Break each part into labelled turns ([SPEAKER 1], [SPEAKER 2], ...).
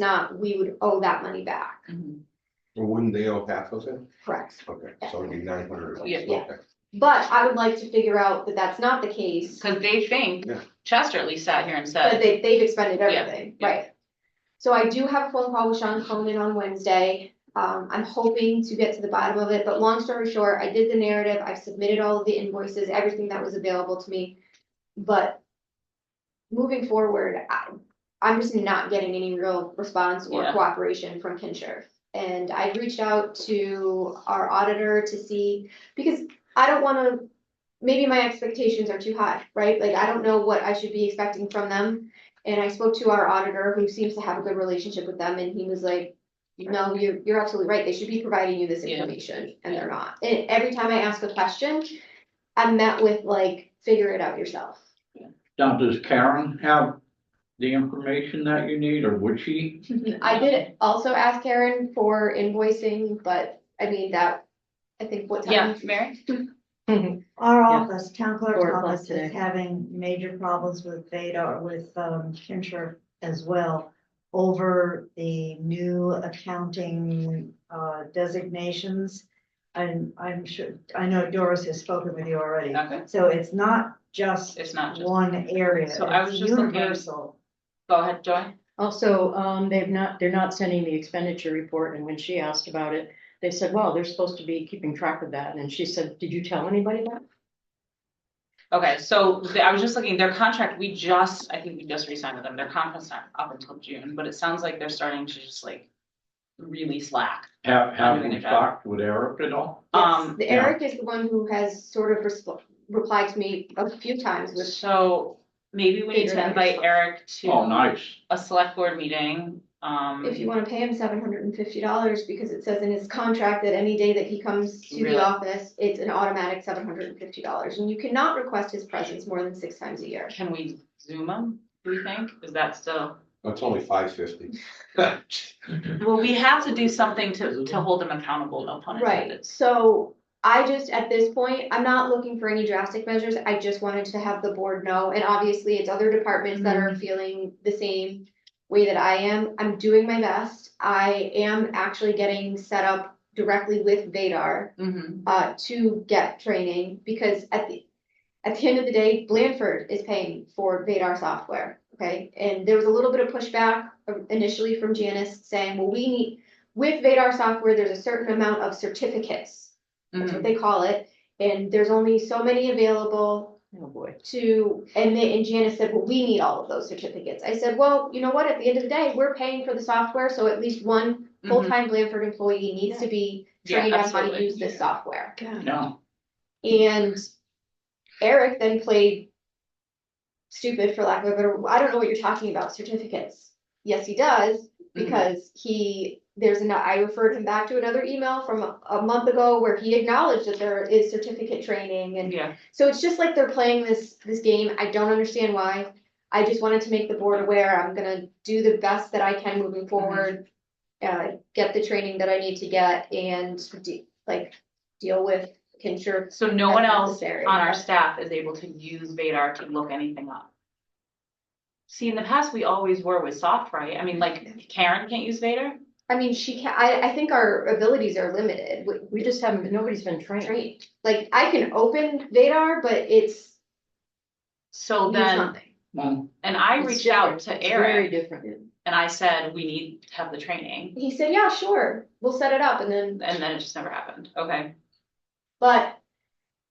[SPEAKER 1] not, we would owe that money back,
[SPEAKER 2] Well, Wouldn't they owe half of it?
[SPEAKER 1] correct?
[SPEAKER 2] Okay, so it'd be nine hundred.
[SPEAKER 3] Oh, Yeah.
[SPEAKER 1] Yeah. But I would like to figure out that that's not the case,
[SPEAKER 3] Cause they think,
[SPEAKER 2] Yeah.
[SPEAKER 3] Chester at least sat here and
[SPEAKER 1] but
[SPEAKER 3] said,
[SPEAKER 1] they, they've expended
[SPEAKER 3] Yeah,
[SPEAKER 1] everything,
[SPEAKER 3] yeah.
[SPEAKER 1] right? So I do have a phone call with Sean Cronin on Wednesday, um, I'm hoping to get to the bottom of it, but long story short, I did the narrative, I've submitted all of the invoices, everything that was available to me. But moving forward, I, I'm just not getting any real response or
[SPEAKER 3] Yeah.
[SPEAKER 1] cooperation from Kinshirf. And I reached out to our auditor to see, because I don't wanna, maybe my expectations are too high, right? Like, I don't know what I should be expecting from them. And I spoke to our auditor, who seems to have a good relationship with them, and he was like, no, you're, you're absolutely right, they should be providing you this
[SPEAKER 3] Yeah.
[SPEAKER 1] information, and they're not. And every time I ask a question, I'm met with like, figure it out yourself.
[SPEAKER 4] Now, does Karen have the information that you need, or would she?
[SPEAKER 1] I did also ask Karen for invoicing, but I mean, that, I think what
[SPEAKER 3] yeah,
[SPEAKER 1] time?
[SPEAKER 3] Mary?
[SPEAKER 5] Our
[SPEAKER 3] Yeah.
[SPEAKER 5] office, town clerk's
[SPEAKER 6] Four o'clock
[SPEAKER 5] office is
[SPEAKER 6] today.
[SPEAKER 5] having major problems with Veda or with um Kincher as well. Over the new accounting uh designations. And I'm sure, I know Doris has spoken with you already,
[SPEAKER 3] Okay,
[SPEAKER 5] so it's not just
[SPEAKER 3] Uh, it's not just,
[SPEAKER 5] one area,
[SPEAKER 3] So I was
[SPEAKER 5] it's
[SPEAKER 3] just looking-
[SPEAKER 5] universal.
[SPEAKER 3] go ahead, Joy,
[SPEAKER 6] Also, um, they've not, they're not sending the expenditure report, and when she asked about it, they said, well, they're supposed to be keeping track of that, and she said, did you tell anybody that?
[SPEAKER 3] okay, so the- I was just looking, their contract, we just, I think we just re-signed with them, their contract's not up until June, but it sounds like they're starting to just like. Really slack,
[SPEAKER 4] Have, have
[SPEAKER 3] doing
[SPEAKER 4] we
[SPEAKER 3] a job.
[SPEAKER 4] talked with Eric at all?
[SPEAKER 1] Yes,
[SPEAKER 3] um,
[SPEAKER 1] the- Eric is the one who has sort of respl- replied to me a few times with,
[SPEAKER 3] so maybe we need
[SPEAKER 1] Figure it
[SPEAKER 3] to
[SPEAKER 1] out
[SPEAKER 3] invite
[SPEAKER 1] yourself.
[SPEAKER 3] Eric
[SPEAKER 4] Oh,
[SPEAKER 3] to
[SPEAKER 4] nice.
[SPEAKER 3] a select board meeting, um.
[SPEAKER 1] if you wanna pay him seven hundred and fifty dollars, because it says in his contract that any day that he comes to
[SPEAKER 3] Really?
[SPEAKER 1] the office, it's an automatic seven hundred and fifty dollars, and you cannot request his presence more than six times a year.
[SPEAKER 3] Can we zoom them, do we think, is that still?
[SPEAKER 2] That's only five fifty.
[SPEAKER 3] Well, we have to do something to, to hold them accountable, no pun
[SPEAKER 1] Right,
[SPEAKER 3] intended.
[SPEAKER 1] so I just, at this point, I'm not looking for any drastic measures, I just wanted to have the board know, and obviously it's other departments that are feeling the same way that I am, I'm doing my best, I am actually getting set up directly with Vadar
[SPEAKER 3] Mhm.
[SPEAKER 1] uh, to get training, because at the, at the end of the day, Blanford is paying for Vadar software, okay? And there was a little bit of pushback initially from Janice saying, well, we need, with Vadar software, there's a certain amount of certificates, that's
[SPEAKER 3] Mhm.
[SPEAKER 1] what they call it, and there's only so many available,
[SPEAKER 6] Oh, boy.
[SPEAKER 1] to, and they, and Janice said, well, we need all of those certificates. I said, well, you know what, at the end of the day, we're paying for the software, so at least one
[SPEAKER 3] Mhm.
[SPEAKER 1] full-time Blanford employee needs to be
[SPEAKER 3] Yeah,
[SPEAKER 1] trained on how to
[SPEAKER 3] absolutely.
[SPEAKER 1] use this software.
[SPEAKER 3] Um,
[SPEAKER 4] No,
[SPEAKER 1] And Eric then played stupid, for lack of a better, I don't know what you're talking about, certificates. Yes, he does, because he, there's an, I referred him back to another email from a, a month ago where he acknowledged that there is certificate training and
[SPEAKER 3] Yeah,
[SPEAKER 1] so it's just like they're playing this, this game, I don't understand why. I just wanted to make the board aware, I'm gonna do the best that I can moving forward. Uh, get the training that I need to get and de- like, deal with Kinshirk.
[SPEAKER 3] so no one
[SPEAKER 1] as
[SPEAKER 3] else
[SPEAKER 1] necessary.
[SPEAKER 3] on our staff is able to use Vadar to look anything up. See, in the past, we always were with soft, right? I mean, like Karen can't use Vadar?
[SPEAKER 1] I mean, she can, I, I think our abilities are limited, with
[SPEAKER 6] We just haven't, been- nobody's been trained.
[SPEAKER 1] trained, like, I can open Vadar, but it's.
[SPEAKER 3] So
[SPEAKER 1] means
[SPEAKER 3] then,
[SPEAKER 1] nothing.
[SPEAKER 4] well,
[SPEAKER 3] and I
[SPEAKER 6] It's
[SPEAKER 3] reached out
[SPEAKER 6] different.
[SPEAKER 3] to
[SPEAKER 6] It's Very
[SPEAKER 3] Eric
[SPEAKER 6] different.
[SPEAKER 3] and I said, we need to have the training,
[SPEAKER 1] He said, yeah, sure, we'll set it up, and then
[SPEAKER 3] and then it just never happened, okay?
[SPEAKER 1] But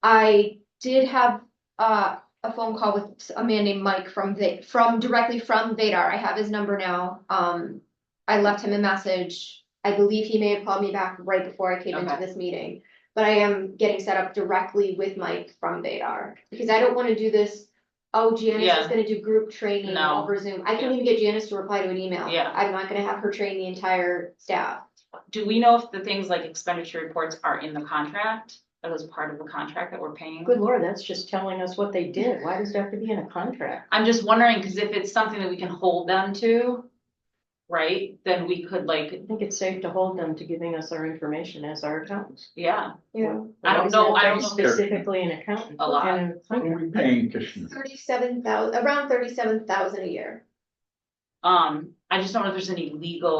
[SPEAKER 1] I did have uh a phone call with a man named Mike from the, from directly from Vadar. I have his number now. Um, I left him a message. I believe he may have called me back right before I came into
[SPEAKER 3] Okay.
[SPEAKER 1] this meeting. But I am getting set up directly with Mike from Vadar because I don't want to do this. Oh, Janice is
[SPEAKER 3] Yeah.
[SPEAKER 1] gonna do group training
[SPEAKER 3] No.
[SPEAKER 1] over Zoom. I
[SPEAKER 3] Yeah.
[SPEAKER 1] can't even get Janice to reply to an email.
[SPEAKER 3] Yeah.
[SPEAKER 1] I'm not gonna have her train the entire staff.
[SPEAKER 3] Do we know if the things like expenditure reports are in the contract? That was part of the contract that we're paying?
[SPEAKER 6] Good lord, that's just telling us what they did. Why does it have to be in a contract?
[SPEAKER 3] I'm just wondering, because if it's something that we can hold them to, right, then we could like,
[SPEAKER 6] I think it's safe to hold them to giving us our information as our accountants.
[SPEAKER 3] yeah,
[SPEAKER 1] Yeah.
[SPEAKER 3] I don't know- I don't know if
[SPEAKER 4] there's-
[SPEAKER 6] Specifically an accountant.
[SPEAKER 3] A lot.
[SPEAKER 6] and a
[SPEAKER 4] what are
[SPEAKER 6] contract.
[SPEAKER 4] we paying Kishner?
[SPEAKER 1] Thirty-seven thousand, around thirty-seven thousand a year.
[SPEAKER 3] Um, I just don't know if there's any legal